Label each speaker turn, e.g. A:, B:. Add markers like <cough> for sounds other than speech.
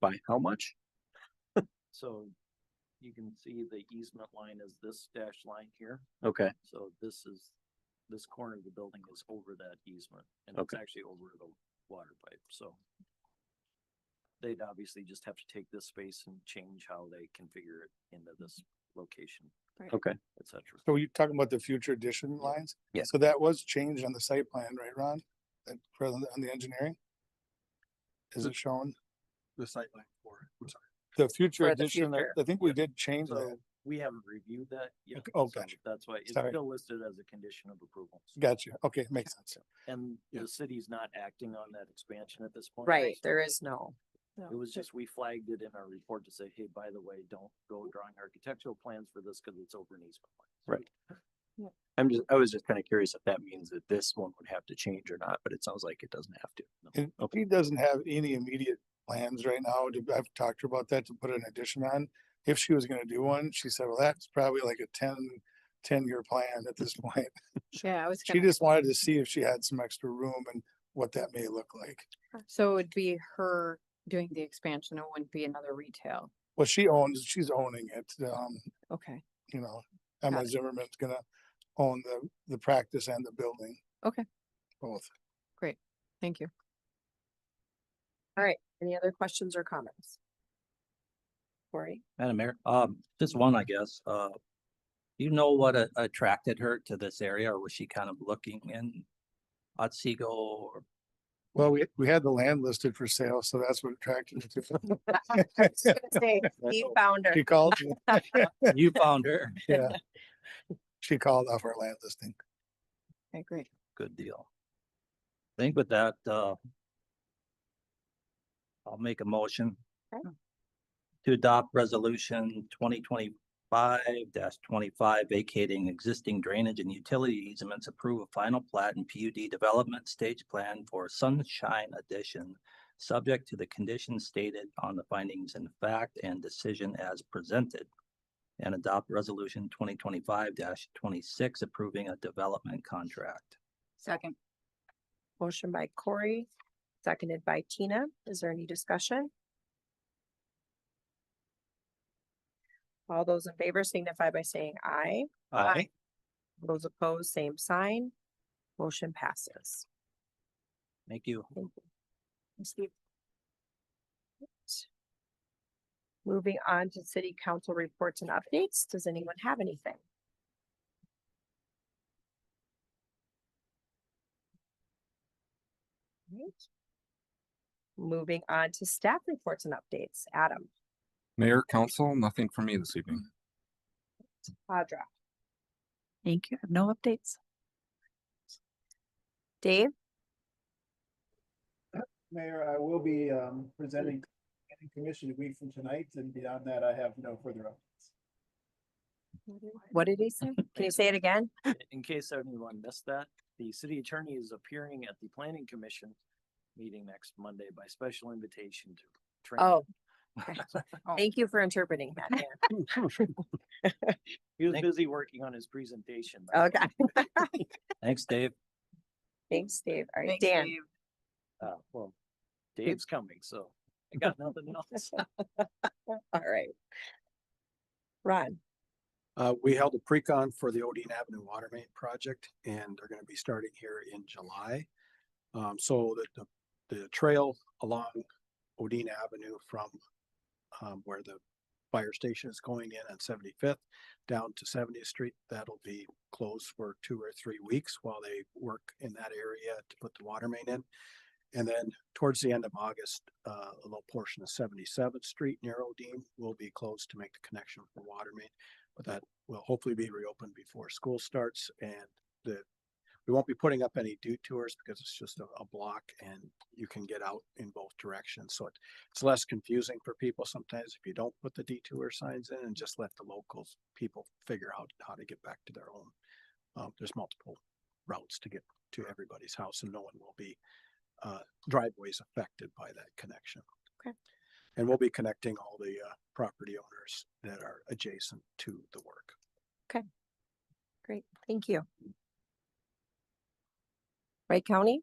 A: By how much?
B: So you can see the easement line is this dashed line here.
A: Okay,
B: So this is, this corner of the building is over that easement and it's
A: Okay.
B: actually over the water pipe, so. They'd obviously just have to take this space and change how they configure it into this location,
A: okay.
B: et cetera.
C: So you're talking about the future addition lines?
A: Yeah.
C: So that was changed on the site plan, right, Ron? That, for the- on the engineering? Is it shown?
D: the sight line for it. I'm sorry.
C: The future
B: For the
C: addition, I
B: future.
C: I think we did change
B: So
C: that.
B: we haven't reviewed that yet.
C: Okay, oh,
B: so
C: gotcha.
B: That's why it's
C: Sorry.
B: still listed as a condition of approval.
C: Gotcha. Okay, makes sense.
B: And
D: Yeah.
B: the city's not acting on that expansion at this point.
E: Right, there is no.
F: Oh,
B: It was just, we flagged it in our report to say, hey, by the way, don't go
F: Mm.
B: drawing architectural plans for this because it's over an easement. line."
A: Right. I'm just, I was just kind of curious if that means that this one would have to change or not, but it sounds like it doesn't have to.
C: And
A: Okay.
C: he doesn't have any immediate plans right now. to- I've talked to her about that to put an addition on. If she was gonna do one, she said, well, that's probably like a 10 10 year plan at this <laughs> point.
E: Yeah, I was
C: She
E: gonna,
C: just wanted to see if she had some extra room and what that may look like.
E: so it would be her doing the expansion, it wouldn't be another retail.
C: Well, she owns, she's owning it. Um,
E: Okay,
C: you know, Emma
E: it.
C: Zimmerman's gonna own the, the practice and the building.
E: Okay.
C: Both.
E: thank you. All right, any other questions or comments? Corey? <laughs>
F: Madam Mayor, um, just one, I guess, uh. do You know what a- attracted her to this area, or was she kind of looking in Otsego or
C: Well, we, we had the land listed for sale, so that's what attracted
E: <laughs>
C: me to.
B: <laughs>
E: He found her.
C: <laughs> She called,
F: you found her?
C: yeah. She called off our land listing.
E: Okay, great.
F: Good deal. I Think with that, uh. I'll make a motion.
E: Okay.
F: To adopt resolution twenty twenty-five twenty-five vacating existing drainage and utility easements, approve a final plat and PUD development stage plan for Sunshine Addition. Subject to the conditions stated on the findings in fact and decision as presented. And adopt resolution twenty twenty-five twenty-six approving a development contract.
E: Second. Motion by Corey, seconded by Tina. Is there any discussion? All those in favor signify by saying aye.
B: Uh,
E: Aye. Those opposed, same sign. Motion passes.
F: Thank you.
E: Moving on to city council reports and updates. Does anyone have anything? Right. Moving on to staff reports and updates. Adam,
G: Mayor, council, nothing for me this evening.
E: Audra,
H: Thank you. I have no updates.
E: Dave,
D: Mayor, I will be um presenting planning commission a week from tonight and beyond that, I have no further updates.
E: what did he
H: <laughs>
E: say? Can you say it again?
B: In case anyone missed that, the city attorney is appearing at the planning commission meeting next Monday by special invitation to. train.
H: <laughs>
E: Oh. okay.
H: Oh.
E: Thank you for interpreting that. Dan.
B: He was
F: Thank-
B: busy working on his presentation.
E: Okay, <laughs>
F: Thanks, Dave.
E: thanks, Dave. All right,
H: Thanks,
E: Dan.
H: Dave.
B: Uh, well, Dave's coming, so I got nothing
E: <laughs>
B: else.
E: All right. Ron,
D: Uh, we held a pre-con for the Odine Avenue Water Main Project and they're gonna be starting here in July. Um, so the, the, the trail along Odine Avenue from um, where the fire station is going in on Seventy-Fifth down to Seventieth Street, that'll be closed for two or three weeks while they work in that area to put the water main in. And then towards the end of August, uh, a little portion of Seventy-seventh Street near Odine will be closed to make the connection for water main but that will hopefully be reopened before school starts and the, we won't be putting up any detours because it's just a, a block and you can get out in both directions. So it, it's less confusing for people sometimes if you don't put the detour signs in and just let the locals, people figure out how to get back to their home. Um, there's multiple routes to get to everybody's house and no one will be, uh, driveways affected by that connection.
E: Okay.
D: And we'll be connecting all the, uh, property owners that are adjacent to the work.
E: great, thank you. Wright County,